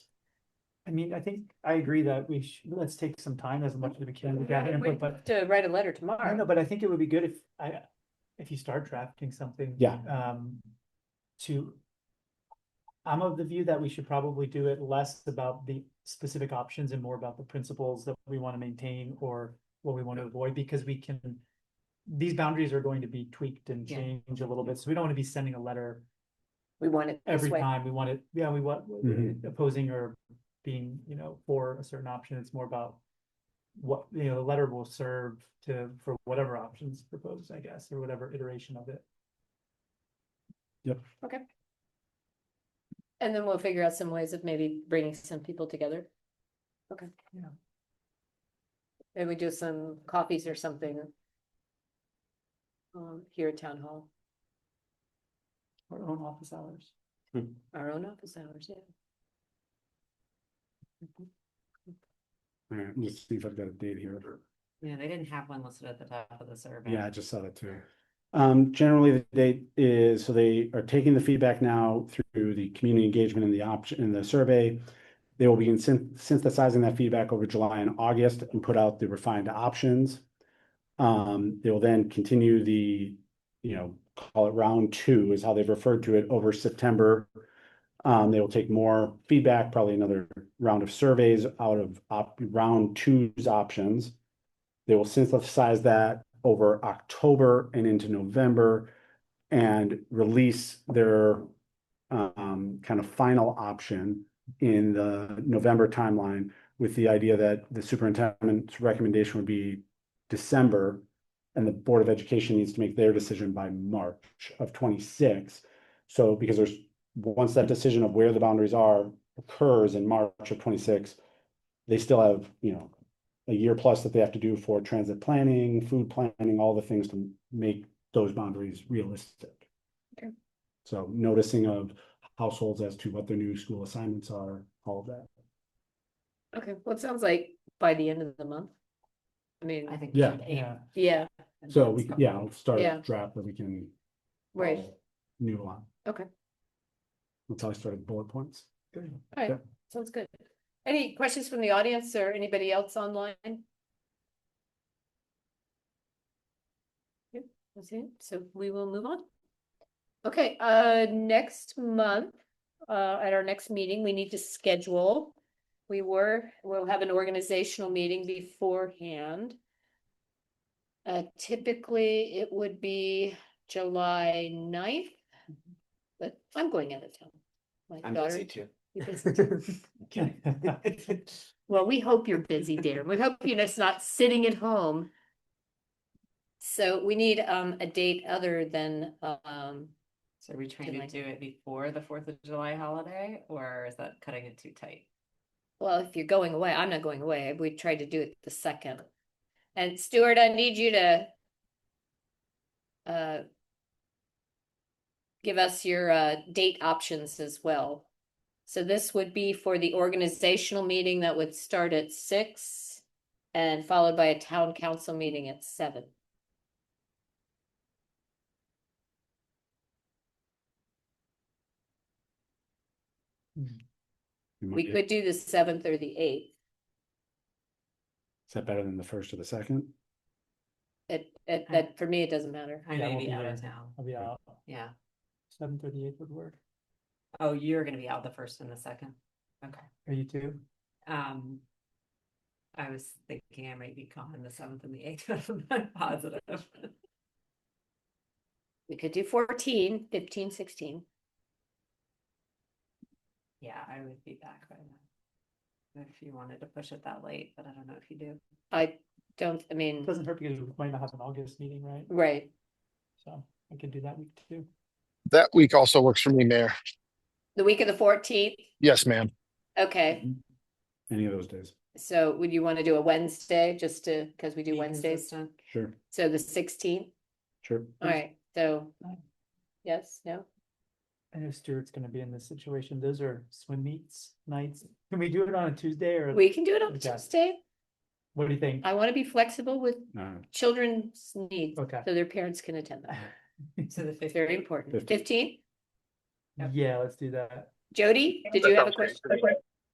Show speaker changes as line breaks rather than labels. I mean, I think, I agree that we should, let's take some time as much as we can to gather input, but
To write a letter
I don't know,
tomorrow.
but I think it would be good if I, if you start drafting something.
Yeah.
Um, to. I'm of the view that we should probably do it less about the specific options and more about the principles that we want to maintain or what we want to avoid, because we can. These boundaries are going to be tweaked and
Yeah.
changed a little bit, so we don't want to be sending a letter
We want it this
every
way.
time we want it, yeah, we want
Mhm.
opposing or being, you know, for a certain option, it's more about. What, you know, the letter will serve to, for whatever options proposed, I guess, or whatever iteration of it.
And then we'll figure out some ways of maybe bringing some people together. Okay.
Yeah.
Maybe we do some coffees or something. Um, here at town hall,
Our own office hours.
our own office hours, yeah.
All right, let's see if I've got a date here.
Yeah, they didn't have one listed at the top of the survey.
Yeah, I just saw that too. Um, generally, the date is, so they are taking the feedback now through the community engagement and the option, and the survey. They will be syn- synthesizing that feedback over July and August and put out the refined options. Um, they will then continue the, you know, call it round two is how they've referred to it over September. Um, they will take more feedback, probably another round of surveys out of op- round two's options. They will synthesize that over October and into November and release their um, kind of final option in the November timeline with the idea that the superintendent's recommendation would be December and the Board of Education needs to make their decision by March of twenty-six. So because there's, once that decision of where the boundaries are occurs in March of twenty-six, they still have, you know, a year plus that they have to do for transit planning, food planning, all the things to make those boundaries realistic.
Okay.
So noticing of households as to what their new school assignments are, all of that.
Okay, well, it sounds like by the end of the month. I mean,
I think.
Yeah.
Yeah,
yeah,
So we, yeah, I'll start
Yeah.
a draft that we can.
right,
follow New line.
Okay.
That's how I started bullet points.
alright, sounds good. Any questions from the audience or anybody else online? Yep, That's it, so we will move on. Okay, uh, next month, uh, at our next meeting, we need to schedule. We were, we'll have an organizational meeting beforehand. Uh, typically, it would be July 9th, but I'm going out of town. My
Mm-hmm. I'm
daughter-
busy too.
you're busy too. Well, we hope you're busy, dear. We hope you're just not sitting at home. So we need um a date other than um,
So are we trying
July.
to do it before the Fourth of July holiday, or is that cutting it too tight?
well, if you're going away, I'm not going away. We tried to do it the second. And Stuart, I need you to uh give us your uh date options as well. So this would be for the organizational meeting that would start at six and followed by a town council meeting at seven. We
Is
could do the seventh or the eighth.
that better than the first or the second?
It, it,
Okay.
that, for me, it doesn't matter.
I
Yeah,
may
we'll
be
be
out of
there.
town.
I'll be out,
Yeah.
seven thirty-eight would work,
Oh, you're gonna be out the first and the second. Okay.
are you too?
Um. I was thinking I might be gone the seventh and the eighth, but I'm not positive.
We could do 14, 15, 16.
Yeah, I would be back by then. If you wanted to push it that late, but I don't know if you do.
I don't, I mean,
It doesn't hurt because we might not have an August meeting, right?
right,
So I can do that week too.
That week also works for me, Mayor.
the week of the fourteenth,
Yes, ma'am.
okay,
Any of those days?
so would you want to do a Wednesday, just to, because we do
Be
Wednesdays,
consistent.
Sure,
so the sixteenth,
sure.
all right, so.
Fine.
Yes, no,
I know Stuart's gonna be in this situation, those are swim meets nights, can we do it on a Tuesday or
we can do it on
Okay.
Tuesday,
what do you think?
I want to be flexible with
Uh,
children's needs,
Okay.
so their parents can attend them,
So the
it's very
fifteenth.
important,
Fifteenth.
fifteen,
Yep.
Yeah, let's do that.
Jody, did you have a question?